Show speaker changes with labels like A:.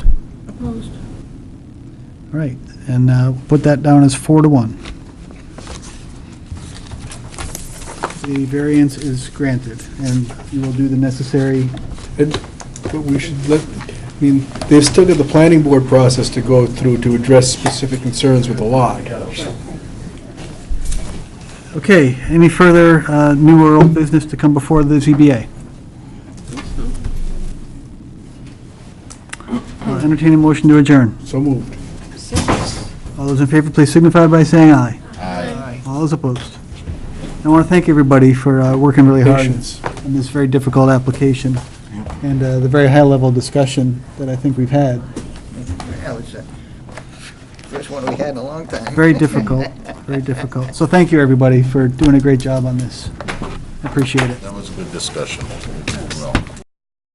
A: Opposed?
B: All right, and uh, put that down as four to one. The variance is granted, and you will do the necessary,
C: And- But we should let, I mean, they've still got the planning board process to go through to address specific concerns with the lot.
B: okay, any further uh, new or old business to come before the ZBA? I'll Entertain a motion to adjourn.
C: So moved.
B: All those in favor, please signify by saying aye. Aye. All those opposed. I want to thank everybody for uh, working really hard
C: Patience.
B: on this very difficult application and uh, the very high-level discussion that I think we've had.
D: That was the first one we had in a long time.
B: Very difficult, very difficult. So thank you, everybody, for doing a great job on this. I appreciate it.
E: That was a good discussion. Well,